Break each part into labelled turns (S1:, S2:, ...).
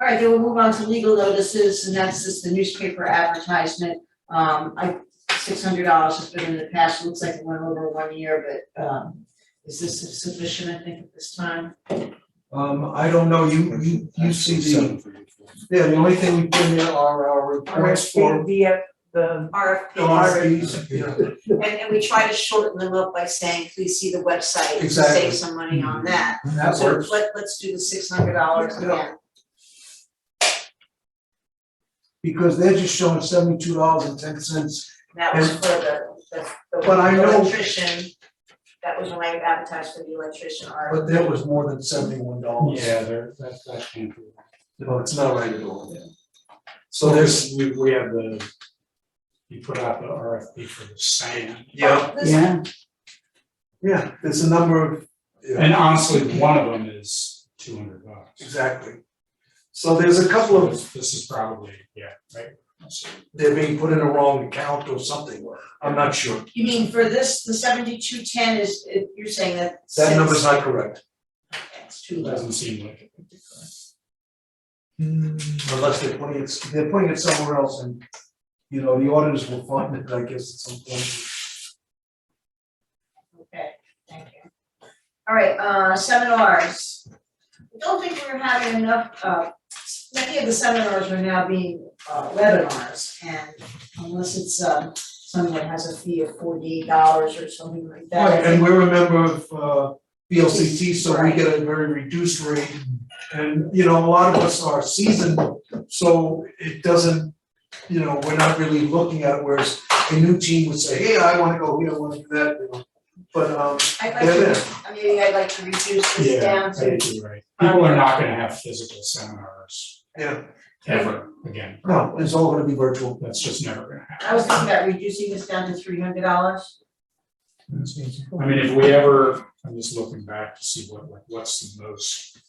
S1: right, then we'll move on to legal notices, and that's just the newspaper advertisement. Um, I, six hundred dollars has been in the past, looks like it went over one year, but, um, is this sufficient, I think, at this time?
S2: Um, I don't know, you, you, you see the, yeah, the only thing we put in there are our reports for
S3: The, uh, the,
S2: the
S1: RFP,
S2: RFPs, yeah.
S1: and, and we try to shorten them up by saying, please see the website, to
S2: Exactly.
S1: save some money on that.
S2: And that
S1: So
S2: works,
S1: let, let's do the six hundred dollars
S2: Yeah.
S1: again.
S2: because they're just showing seventy-two dollars and ten cents.
S1: That was for the, the,
S2: But I
S1: the
S2: know-
S1: electrician, that was when I advertised for the electrician RFP.
S2: But that was more than seventy-one dollars.
S4: Yeah, there, that's, that can't be.
S2: No, it's not right at all.
S4: Yeah.
S2: So there's,
S4: We, we have the, you put out the RFP for the sand.
S2: yeah,
S1: This-
S3: yeah,
S2: yeah, there's a number of, yeah,
S4: And honestly, one of them is two hundred bucks.
S2: exactly. So there's a couple of,
S4: This this is probably, yeah, right?
S2: they're being put in a wrong account or something, I'm not sure,
S1: You mean for this, the seventy-two ten is, it- you're saying that
S2: that number's
S1: since-
S2: not correct.
S1: It's too low.
S4: Doesn't seem like it.
S2: Unless they're putting it, they're putting it somewhere else and, you know, the auditors will find it, I guess, at some point.
S1: Okay, thank you. All right, uh, seminars. I don't think we're having enough, uh, many of the seminars are now being uh, webinars, and unless it's, um, someone has a fee of forty-eight dollars or something like that. I
S2: Right, and
S1: think-
S2: we're a member of uh BLCT, so we get a very reduced rate. And, you know, a lot of us are seasoned, so it doesn't, you know, we're not really looking at it, whereas a new team would say, hey, I wanna go here, I wanna do that, you know. But um,
S1: I'd like
S2: they're there,
S1: to, maybe I'd like to reduce this
S4: Yeah,
S1: down
S4: I
S1: to,
S4: think you're right. People are not gonna have physical seminars
S2: yeah,
S4: ever again.
S2: no, it's all gonna be virtual.
S4: That's just never gonna
S1: I was
S4: happen.
S1: thinking about reducing this down to three hundred dollars.
S4: I mean, if we ever, I'm just looking back to see what, like, what's the most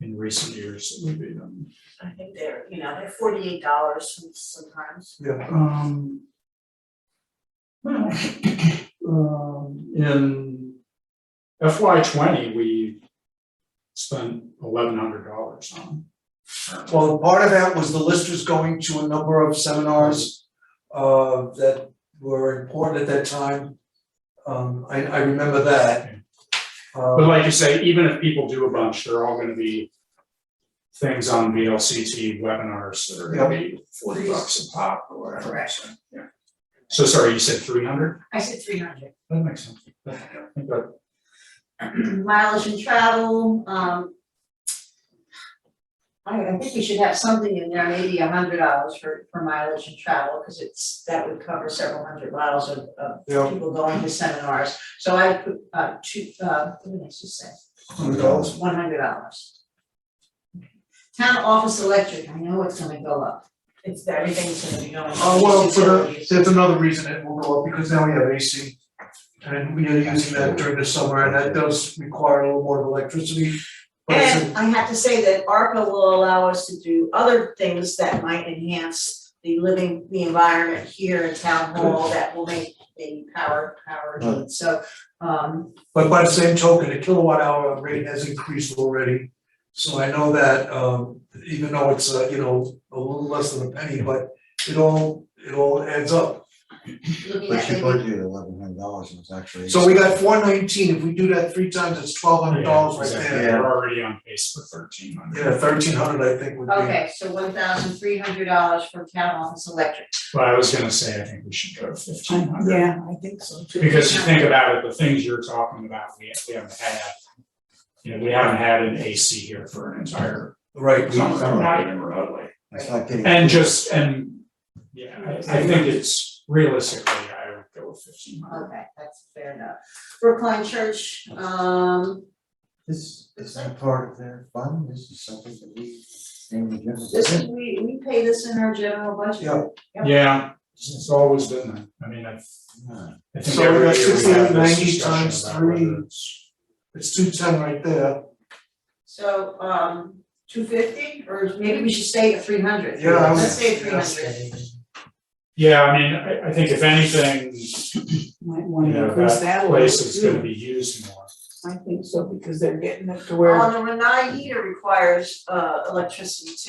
S4: in recent years that we've been.
S1: I think they're, you know, they're forty-eight dollars sometimes.
S2: Yeah,
S4: Um. Well, um, in FY twenty, we spent eleven hundred dollars on.
S2: well, part of that was the listers going to a number of seminars uh that were important at that time. Um, I I remember that. Um,
S4: But like you say, even if people do a bunch, they're all gonna be things on VLCT webinars that are gonna be forty bucks a pop or whatever. so, yeah. So sorry, you said three hundred?
S1: I said three hundred.
S4: That makes sense. I think that-
S1: mileage and travel, um. I, I think we should have something in there, maybe a hundred dollars for, for mileage and travel, cause it's, that would cover several hundred miles of, of
S2: Yeah.
S1: people going to seminars. So I put, uh, two, uh, what did I just say?
S2: Hundred dollars.
S1: One hundred dollars. Town office electric, I know it's gonna go up, it's, everything's gonna be going up.
S2: Uh, well, for the,
S1: Utilities.
S2: that's another reason it will go up, because now we have AC. And we are using that during the summer, and that does require a little more of electricity. But it's a-
S1: And I have to say that ARPA will allow us to do other things that might enhance the living, the environment here in town hall that will make the power, power good, so, um,
S2: but by the same token, the kilowatt hour rate has increased already. So I know that, um, even though it's, uh, you know, a little less than a penny, but it all, it all adds up.
S1: looking
S5: But
S1: at
S5: you
S1: maybe,
S5: budgeted eleven hundred dollars and it's actually.
S2: So we got four nineteen, if we do that three times, it's twelve hundred dollars
S4: Yeah,
S2: right
S4: exactly.
S2: there.
S5: Yeah.
S4: We're already on pace for thirteen hundred.
S2: Yeah, thirteen hundred, I think, would be.
S1: okay, so one thousand three hundred dollars for town office electric.
S4: But I was gonna say, I think we should go to fifteen
S3: I-
S4: hundred.
S3: yeah, I think so too.
S4: Because you think about it, the things you're talking about, we we haven't had. You know, we haven't had an AC here for an entire,
S2: Right, we-
S4: summer, not even remotely.
S5: It's not getting.
S4: And just, and, yeah, I I think it's realistically, I would go with fifteen hundred.
S1: Okay, that's fair enough. Brookline Church, um,
S5: This is not part of their fund, this is something that we, in the general.
S1: this, is- we, we pay this in our general budget.
S2: Yeah.
S4: Yeah, it's always been that, I mean, I
S5: Alright.
S4: I think
S2: So we
S4: every
S2: got
S4: year we
S2: 1690
S4: have this discussion
S2: times
S4: about whether
S2: three.
S4: it's-
S2: it's two ten right there.
S1: So, um, two fifty, or maybe we should stay at three hundred.
S2: Yeah, I
S1: Let's
S2: was.
S1: stay at three hundred.
S4: Yeah, I mean, I I think if anything,
S3: Might
S4: you
S3: wanna
S4: know,
S3: increase that
S4: that
S3: a little
S4: place is gonna
S3: too.
S4: be used more.
S3: I think so, because they're getting it to where.
S1: Well, the Renai heater requires, uh, electricity too.